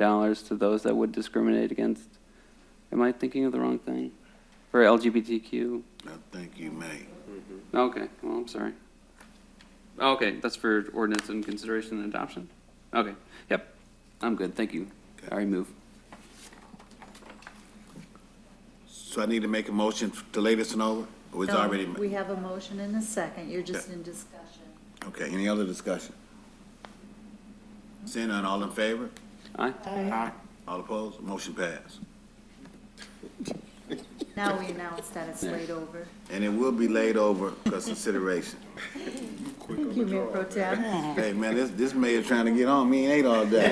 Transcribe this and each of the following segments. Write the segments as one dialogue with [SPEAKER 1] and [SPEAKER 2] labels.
[SPEAKER 1] dollars to those that would discriminate against. Am I thinking of the wrong thing? For LGBTQ?
[SPEAKER 2] I think you may.
[SPEAKER 1] Okay, well, I'm sorry. Okay, that's for ordinance and consideration and adoption? Okay, yep, I'm good, thank you. I remove.
[SPEAKER 2] So I need to make a motion to lay this one over? Or it's
[SPEAKER 3] No,
[SPEAKER 2] already, ma-
[SPEAKER 3] Um, We have a motion and a second, you're just in discussion.
[SPEAKER 2] okay, any other discussion? Seeing none, all in favor?
[SPEAKER 1] Aye,
[SPEAKER 2] All opposed? Motion passed.
[SPEAKER 3] Now we announce that it's laid over.
[SPEAKER 2] And it will be laid over for consideration.
[SPEAKER 3] Thank you, Mayor Pro Tem.
[SPEAKER 2] Hey, man, this, this mayor trying to get on me and ate all day.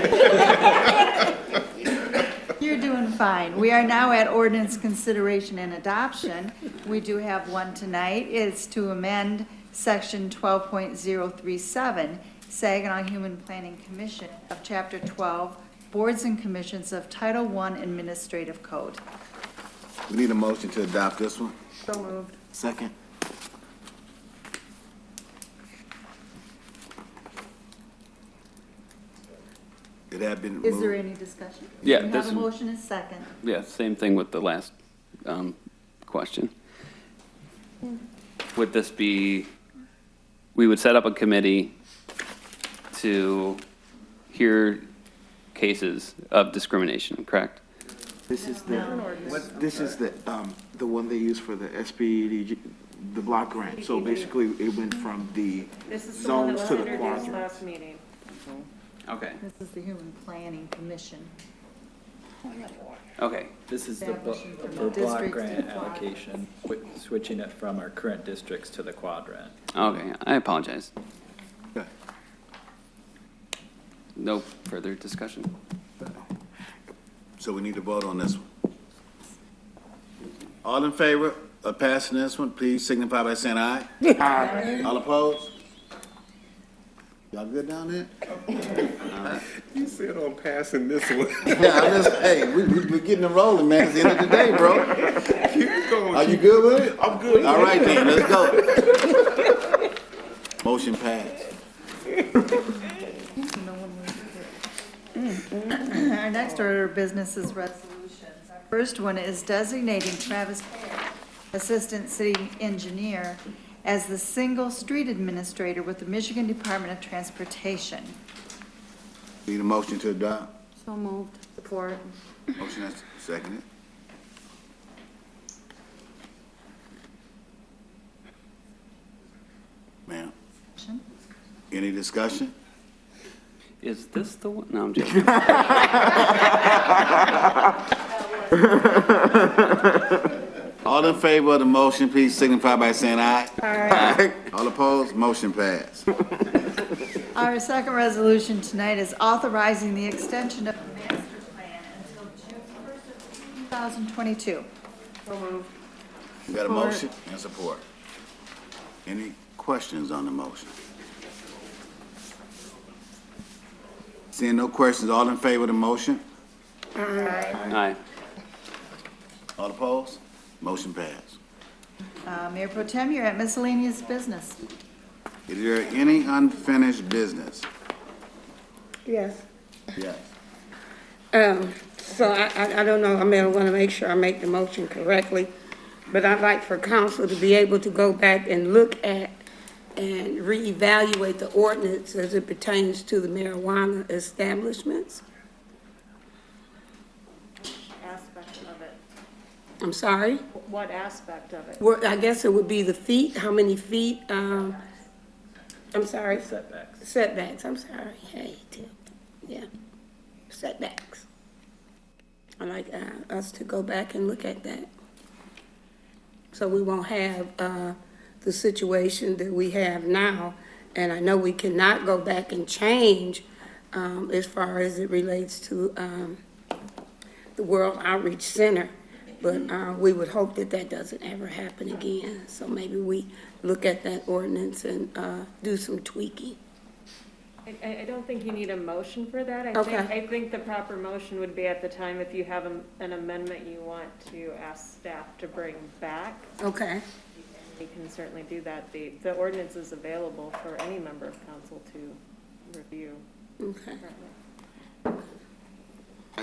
[SPEAKER 3] You're doing fine. We are now at ordinance consideration and adoption. We do have one tonight. It's to amend section twelve point zero three seven, Saginaw Human Planning Commission of Chapter twelve, Boards and Commissions of Title One Administrative Code.
[SPEAKER 2] We need a motion to adopt this one.
[SPEAKER 3] So moved.
[SPEAKER 2] Second. It had been
[SPEAKER 3] Is there
[SPEAKER 2] moved.
[SPEAKER 3] any discussion?
[SPEAKER 1] Yeah,
[SPEAKER 3] We have
[SPEAKER 1] this-
[SPEAKER 3] a motion and second.
[SPEAKER 1] yeah, same thing with the last, um, question. Would this be, we would set up a committee to hear cases of discrimination, correct?
[SPEAKER 4] This is
[SPEAKER 3] No.
[SPEAKER 4] the, what- this is the, um, the one they use for the SBDG, the block grant. So basically, it went from the
[SPEAKER 5] This is the one that
[SPEAKER 4] zones
[SPEAKER 5] was
[SPEAKER 4] to the
[SPEAKER 5] introduced
[SPEAKER 4] quadrants.
[SPEAKER 5] last meeting.
[SPEAKER 1] Okay,
[SPEAKER 3] This is the Human Planning Commission.
[SPEAKER 1] okay,
[SPEAKER 6] This is the blo-
[SPEAKER 3] Establishing from
[SPEAKER 6] for block
[SPEAKER 3] districts to
[SPEAKER 6] grant
[SPEAKER 3] quadrants.
[SPEAKER 6] allocation, wi- switching it from our current districts to the quadrant.
[SPEAKER 1] Okay, I apologize.
[SPEAKER 2] Okay.
[SPEAKER 1] No further discussion.
[SPEAKER 2] So we need to vote on this one. All in favor of passing this one, please signify by saying aye. Aye. All opposed? Y'all good down there?
[SPEAKER 7] You said on passing this one.
[SPEAKER 2] Yeah, I'm just, hey, we, we, we're getting it rolling, man. It's the end of the day, bro.
[SPEAKER 7] Keep
[SPEAKER 2] Are
[SPEAKER 7] going.
[SPEAKER 2] you good with it?
[SPEAKER 7] I'm good.
[SPEAKER 2] All right then, let's go. Motion passed.
[SPEAKER 3] No one was here. Our next order of business is resolutions. Our First one is designating Travis Perry, Assistant City Engineer, as the single street administrator with the Michigan Department of Transportation.
[SPEAKER 2] Need a motion to adopt?
[SPEAKER 5] So moved. Support.
[SPEAKER 2] Motion is seconded. Ma'am, any discussion?
[SPEAKER 1] Is this the one? No, I'm joking.
[SPEAKER 2] All in favor of the motion, please signify by saying aye. Aye. All opposed, motion passed.
[SPEAKER 3] Our second resolution tonight is authorizing the extension of the master plan until June 1st of 2022.
[SPEAKER 2] We got a motion and support. Any questions on the motion? Seeing no questions, all in favor of the motion?
[SPEAKER 1] Aye.
[SPEAKER 2] All opposed? Motion passed.
[SPEAKER 3] Uh, Mayor Pro Tem, you're at miscellaneous business.
[SPEAKER 2] Is there any unfinished business?
[SPEAKER 8] Yes.
[SPEAKER 2] Yes.
[SPEAKER 8] Um, so I, I, I don't know, I mean, I wanna make sure I make the motion correctly, but I'd like for council to be able to go back and look at and reevaluate the ordinance as it pertains to the marijuana establishments.
[SPEAKER 5] Aspect of it.
[SPEAKER 8] I'm sorry,
[SPEAKER 5] What aspect of it?
[SPEAKER 8] Well, I guess it would be the feet, how many feet, um, I'm sorry,
[SPEAKER 6] Setbacks.
[SPEAKER 8] setbacks, I'm sorry, hey, Tim, yeah, setbacks. I'd like uh, us to go back and look at that. So we won't have uh, the situation that we have now. And I know we cannot go back and change um, as far as it relates to um, the World Outreach Center. But uh, we would hope that that doesn't ever happen again. So maybe we look at that ordinance and uh, do some tweaking.
[SPEAKER 5] I- I, I don't think you need a motion for that. I think,
[SPEAKER 8] Okay.
[SPEAKER 5] I think the proper motion would be at the time if you have an an amendment you want to ask staff to bring back.
[SPEAKER 8] Okay.
[SPEAKER 5] You can certainly do that. The, the ordinance is available for any member of council to review.
[SPEAKER 8] Okay.
[SPEAKER 5] currently.